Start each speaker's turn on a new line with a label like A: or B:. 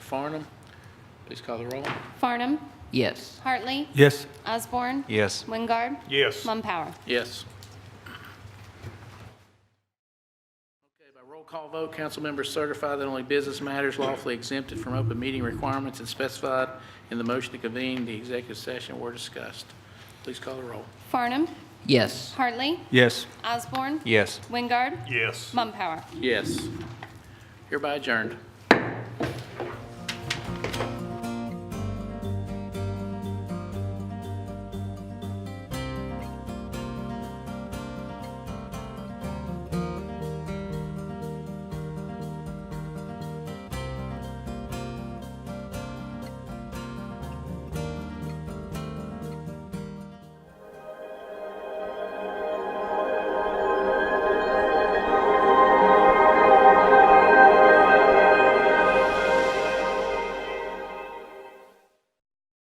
A: Farnum. Please call the roll.
B: Farnum.
C: Yes.
B: Hartley.
D: Yes.
B: Osborne.
E: Yes.
B: Wingard.
D: Yes.
B: Mumpower.
A: Yes. Okay, by roll call vote, council members certify that only business matters lawfully exempted from open meeting requirements and specified in the motion to convene the executive session were discussed. Please call the roll.
B: Farnum.
C: Yes.
B: Hartley.
D: Yes.
B: Osborne.
E: Yes.
B: Wingard.
D: Yes.
B: Mumpower.
A: Yes. Hereby adjourned.